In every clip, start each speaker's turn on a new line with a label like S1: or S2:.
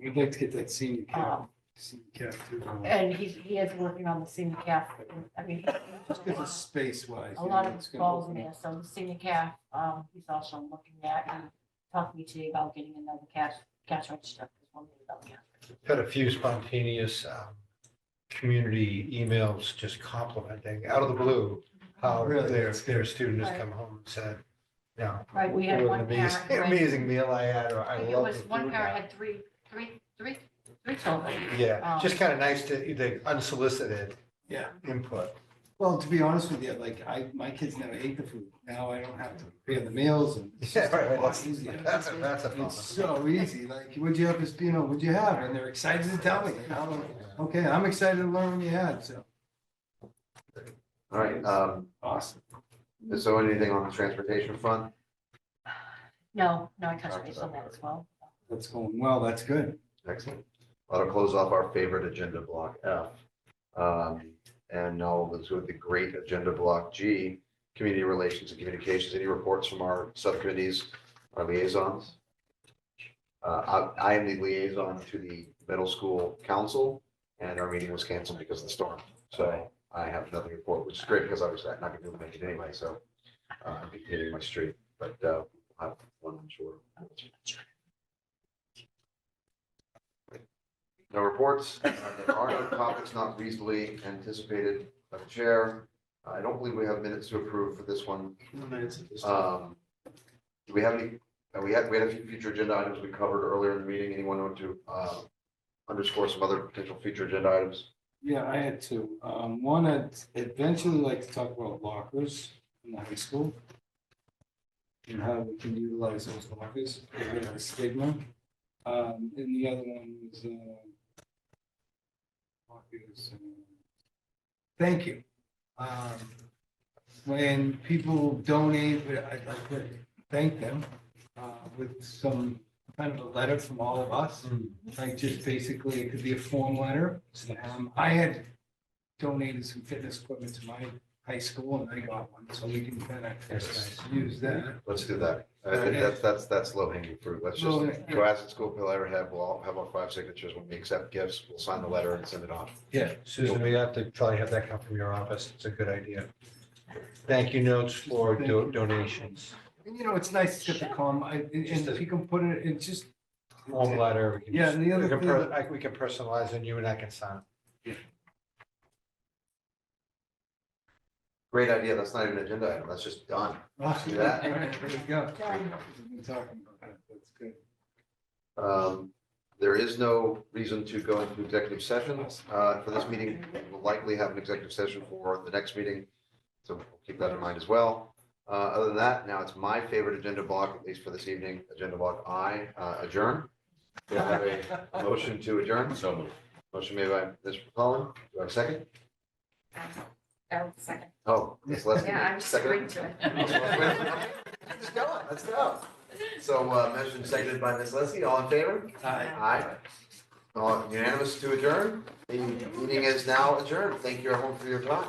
S1: We'd like to get that senior cap,
S2: Um,
S1: senior uh, cap too.
S2: And he's, he is working on the senior calf, I mean.
S1: Just because of space wise.
S2: a lot of balls in there, so the senior calf, um, he's also looking at and talked to me today about getting another cash, cash register. There's one thing about cash register.
S3: Had a few spontaneous um, community emails just complimenting out of the blue how
S1: Really?
S3: their, their student has come home and said, no.
S2: Right, we
S3: It
S2: had
S3: was
S2: one
S3: an
S2: parent.
S3: amazing,
S2: who went-
S3: amazing meal I had, or
S2: I
S3: I
S2: think It
S3: love the
S2: was,
S3: food.
S2: one parent
S3: now."
S2: had three, three, three, three children.
S3: Yeah,
S2: um,
S3: just kind of nice to, the unsolicited
S1: Yeah,
S3: input.
S1: well, to be honest with you, like I, my kids never ate the food. Now I don't have to prepare the meals and. it's
S3: Yeah,
S1: just a
S3: right,
S1: lot
S3: that's,
S1: easier.
S3: that's a, that's a
S1: It's
S3: problem.
S1: so easy, like, what'd you have, this- you know, what'd you have? And they're excited to tell me. And I'm like, Okay, I'm excited to learn what you had, so,
S4: All right, um,
S1: awesome.
S4: is there anything on the transportation front?
S2: No, no, I touched base on that as well.
S1: That's going well, that's good.
S4: Excellent. That'll close off our favorite agenda block F. Um, and now we'll go to the great agenda block G, community relations and communications. Any reports from our subcommittees, our liaisons? Uh, I, I am the liaison to the middle school council and our meeting was canceled because of the storm. So I have nothing to report, which is great because obviously I'm not gonna be able to make it anyway, so. Uh, I'll be hitting my street, but, uh, I'll have one, I'm sure. No reports. Uh, There are no topics not reasonably anticipated by the chair. I don't believe we have minutes to approve for this one.
S3: Uh,
S4: Um, Do we have any, uh, we had, we had a few future agenda items we covered earlier in the meeting. Anyone want to uh, underscore some other potential future agenda items?
S1: Yeah, I had two. Um, one, I'd eventually like to talk about lockers in the high school. And how we can utilize those lockers, get rid of the stigma. Um, and the other one was, uh. lockers, uh, Thank you. Um, when people donate, I'd like to thank them, uh, with some kind of a letter from all of us. Like just basically, it could be a form letter. Um, I had donated some fitness equipment to my high school and I got one, so we can kind
S3: Yes.
S1: of use that.
S4: Let's do that. I think that's, that's, that's low hanging fruit. Let's just go ask the school, if they'll ever have, we'll all have our five signatures. When we accept gifts, we'll sign the letter and send it off.
S3: Yeah, Susan, we have to probably have that come from your office. It's a good idea. Thank you notes for do- donations,
S1: And you know, it's nice to get the com, I, and and if you can put it, it just.
S3: home letter. we can-
S1: Yeah, and the other
S3: we can
S1: thing-
S3: per- I- We can personalize and you and I can sign.
S4: Great idea. That's not even an agenda item. That's just done.
S1: Awesome,
S4: Do that.
S1: all right, There you go.
S2: Done.
S1: We're talking about that, that's good.
S4: Um, There is no reason to go into executive session uh, for this meeting. We'll likely have an executive session for the next meeting. So we'll keep that in mind as well. Uh, Other than that, now it's my favorite agenda block, at least for this evening, agenda block I, uh, adjourn. Do I have a motion to adjourn? So moved. Motion made by Mr. Cullen. Do I have a second?
S5: Oh, second.
S4: Oh, Ms. Leslie.
S5: Yeah, I'm just agreeing
S4: seconded.
S5: to it.
S4: Let's go, let's go. So uh, motion seconded by Ms. Leslie. All in favor? Aye. All unanimous to adjourn. The meeting is now adjourned. Thank you everyone for your time.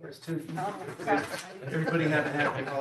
S1: There's two.
S2: Oh, crap.
S1: Everybody have a happy holiday.